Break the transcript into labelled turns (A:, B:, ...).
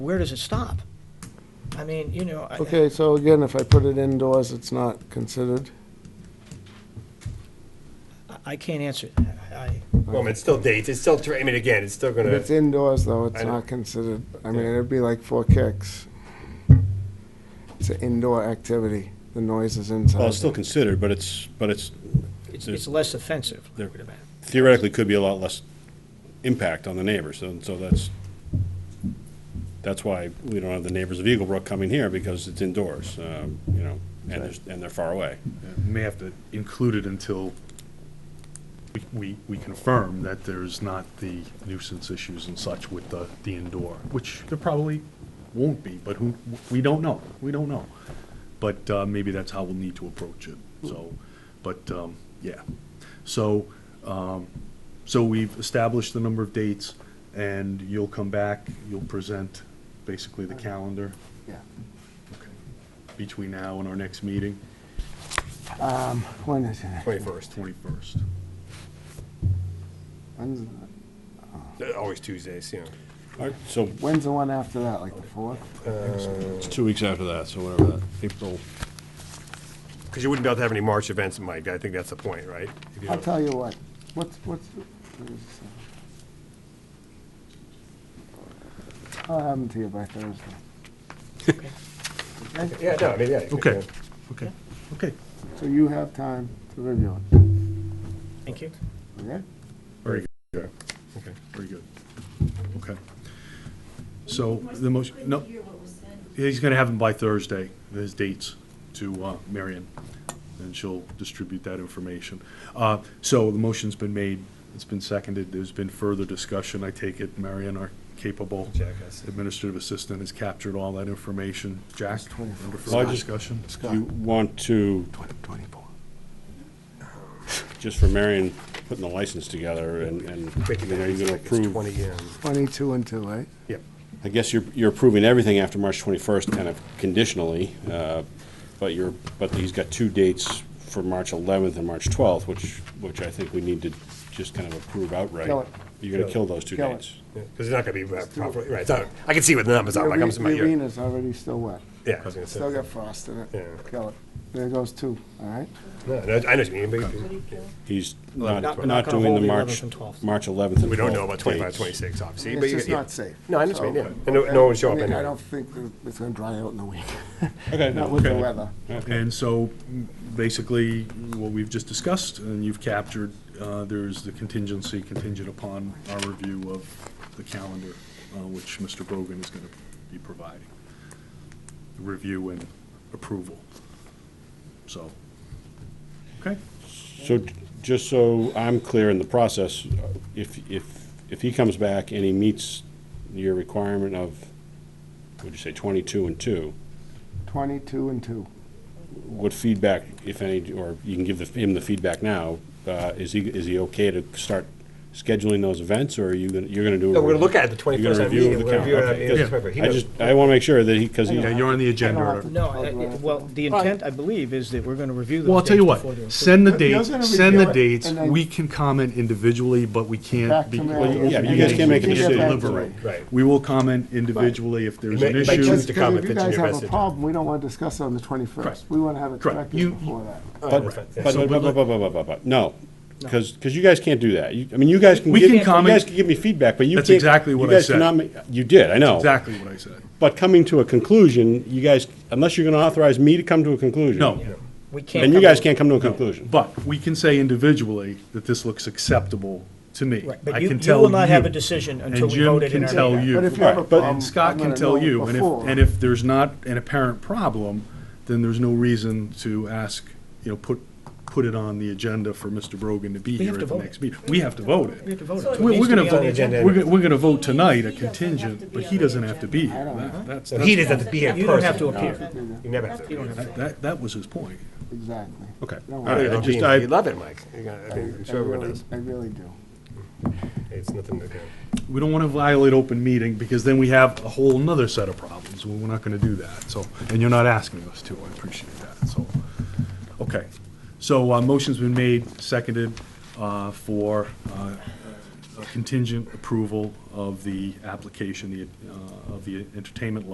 A: where does it stop? I mean, you know, I-
B: Okay, so again, if I put it indoors, it's not considered.
A: I, I can't answer that. I,
C: Well, I mean, it's still dates, it's still, tra- I mean, again, it's still
B: If
C: gonna,
B: it's indoors, though,
C: I
B: it's
C: know.
B: not considered, I mean, it'd be like four kicks. It's an indoor activity, the noise is
D: Well, it's still
B: inside.
D: considered, but it's, but it's
A: it's,
D: There's-
A: it's less offensive.
D: there- theoretically could be a lot less impact on the neighbors, and so that's, that's why we don't have the neighbors of Eagle Brook coming here, because it's indoors, um, you know, and there's, and they're far away.
E: We May have to include it until we- we, we confirm that there's not the nuisance issues and such with the, the indoor, which there probably won't be, but who, we don't know, we don't know. But, uh, maybe that's how we'll need to approach it, so, but, um, yeah. So, um, so we've established the number of dates, and you'll come back, you'll present basically the calendar
B: Yeah.
E: between now and our next meeting,
B: Um, when is it?
C: twenty-first,
E: twenty-first.
B: When's,
C: Uh, always Tuesdays, you know.
D: All right, so
B: when's the one after that, like the fourth?
D: it's two weeks after that, so whatever that, April,
C: Because you wouldn't be able to have any March events, Mike, I think that's the point, right? If you
B: I'll
C: don't-
B: tell you what, what's, what's, what is this? I'll have them to you by Thursday. Okay?
C: Yeah, no, I mean, yeah. you could,
E: Okay,
C: uh,
E: okay, okay,
B: So you have time to review it,
A: Thank you.
B: okay?
E: very good,
C: Okay.
E: very good. Okay. So the motion, no,
F: Hear what was said.
E: he's gonna have them by Thursday, his dates to uh, Marion, and she'll distribute that information. Uh, So the motion's been made, it's been seconded, there's been further discussion, I take it Marion, our capable
C: Jack has-
E: administrative assistant, has captured all that information. Jack, under
D: Well,
E: further
D: I just-
E: discussion?
D: do you want to,
B: Twenty-four.
D: just for Marion putting the license together and, and,
C: Quick
D: you know,
C: events,
D: you're gonna
C: like it's
D: approve,
C: twenty, um,
B: Twenty-two and two, right?
C: yep.
D: I guess you're, you're approving everything after March 21st, kind of conditionally, uh, but you're, but he's got two dates for March 11th and March 12th, which, which I think we need to just kind of approve outright.
B: Kill it.
D: You're going to kill those two
B: Kill it.
D: dates.
C: Because it's not gonna be uh, properly, right, it's not- I can see what the numbers are, like, I'm,
B: The
C: yeah,
B: arena's already still wet.
C: yeah, I was gonna say.
B: Still got frost in it.
C: Yeah.
B: Kill it. There goes two, all right?
C: No, no, I know what you mean, but
D: He's
A: not-
D: not,
A: we're not
D: not
A: gonna
D: doing
A: hold
D: the
A: the
D: March,
A: 11th and 12th.
D: March 11th and 12th
C: we don't know about twenty-five,
D: dates.
C: twenty-six, obviously, but
B: It's
C: you-
B: just
C: yeah.
B: not safe.
C: No, I understand,
B: So-
C: yeah, and no, no one will show up
B: I mean,
C: anyway.
B: I don't think that it's gonna dry out in a week,
D: Okay.
B: not with the
D: okay.
B: weather.
E: And so, m- basically, what we've just discussed, and you've captured, uh, there's the contingency contingent upon our review of the calendar, uh, which Mr. Brogan is gonna be providing. Review and approval. So, okay?
D: So, j- just so I'm clear in the process, if, if, if he comes back and he meets your requirement of, what'd you say, 22 and 2,
B: Twenty-two and two.
D: what feedback, if any, or you can give the- him the feedback now, uh, is he, is he okay to start scheduling those events, or are you, gonna- you're gonna do? a
C: No, we're gonna
D: review-
C: look at the
D: you're gonna
C: 21st at
D: review
C: meeting,
D: the
C: we're
D: count,
C: reviewing
D: okay,
C: it,
D: because
C: it's perfect. He
D: I
C: knows.
D: just, I wanna make sure that he, because he,
E: Yeah, you're on the agenda.
A: No, I- I- well, the intent, I believe, is that we're gonna review
E: Well, I'll
A: those
E: tell
A: dates
E: you
A: before they're
E: what, send the
B: But you're gonna
E: dates, send the
B: review it,
E: dates,
B: and then-
E: we can comment individually, but we
B: Back
E: can't.
B: to
E: be-
B: Mary Well,
D: yeah, you guys can't make a
E: We
D: decision.
E: deliberate.
C: Right.
E: We will comment individually if there's
C: You
E: an
C: may- may
E: issue.
C: choose
B: Because
C: to
B: because
C: comment
B: if you
C: that's in
B: guys
C: your
B: have a
C: message.
B: problem, we don't wanna discuss it on the twenty-first.
E: Correct.
B: We wanna have it
E: Correct.
B: corrected
E: You-
B: before that.
D: but,
C: right,
D: but,
C: yeah.
D: but,
E: So,
D: but,
E: but
D: but,
E: let-
D: but, but, but, no, because, because you guys can't do that. You- I mean, you guys can
E: We
D: give,
E: can
D: you
E: comment-
D: guys can give me feedback, but you can't.
E: That's exactly what
D: you
E: I
D: guys
E: said.
D: cannot ma- You did, I know.
E: Exactly what I said.
D: But coming to a conclusion, you guys, unless you're gonna authorize me to come to a conclusion.
E: No,
A: We can't.
D: Then you
A: come
D: guys
A: up-
D: can't come to a conclusion.
E: but we can say individually that this looks acceptable to me.
A: Right,
E: I
A: But you,
E: can
A: you
E: tell
A: will not have a
E: you.
A: decision
E: And
A: until we
E: Jim
A: voted in
E: can
A: our
E: tell
A: meeting.
E: you.
B: But if you have a
D: Right, but-
B: problem,
E: And Scott
B: I'm
E: can
B: gonna
E: tell
B: know
E: you, and
B: before.
E: if, and if there's not an apparent problem, then there's no reason to ask, you know, put, put it on the agenda for Mr. Brogan to be
A: have
E: here
A: to
E: at the
A: vote
E: next meeting. We have to vote
A: We have
E: it.
A: to vote. it.
F: So it
E: We're,
A: needs
E: we're
A: to
E: gonna
A: be on the
E: vote,
A: agenda.
C: agenda.
E: we're, we're gonna vote tonight, a
F: He doesn't have to be
E: contingent, but
F: on
E: he
F: the
E: doesn't have to be
F: agenda.
E: here. That- That's,
C: So he
E: that's,
C: doesn't have to be in person.
A: You don't have to appear.
C: You never have to.
E: that- that, that was his point.
B: Exactly.
D: Okay.
B: No,
D: All
B: I-
D: right, I
C: You'd
D: just, I,
C: love it, Mike. You got- I mean, I'm
B: I
C: sure everyone
B: really,
C: does.
B: I really do.
C: It's nothing to
E: We don't wanna violate open meeting, because then we have a whole nother set of problems, we're not gonna do that, so, and you're not asking us to, I appreciate that, so. Okay, so, uh, motion's been made, seconded, uh, for, uh, contingent approval of the application, the, uh, of the entertainment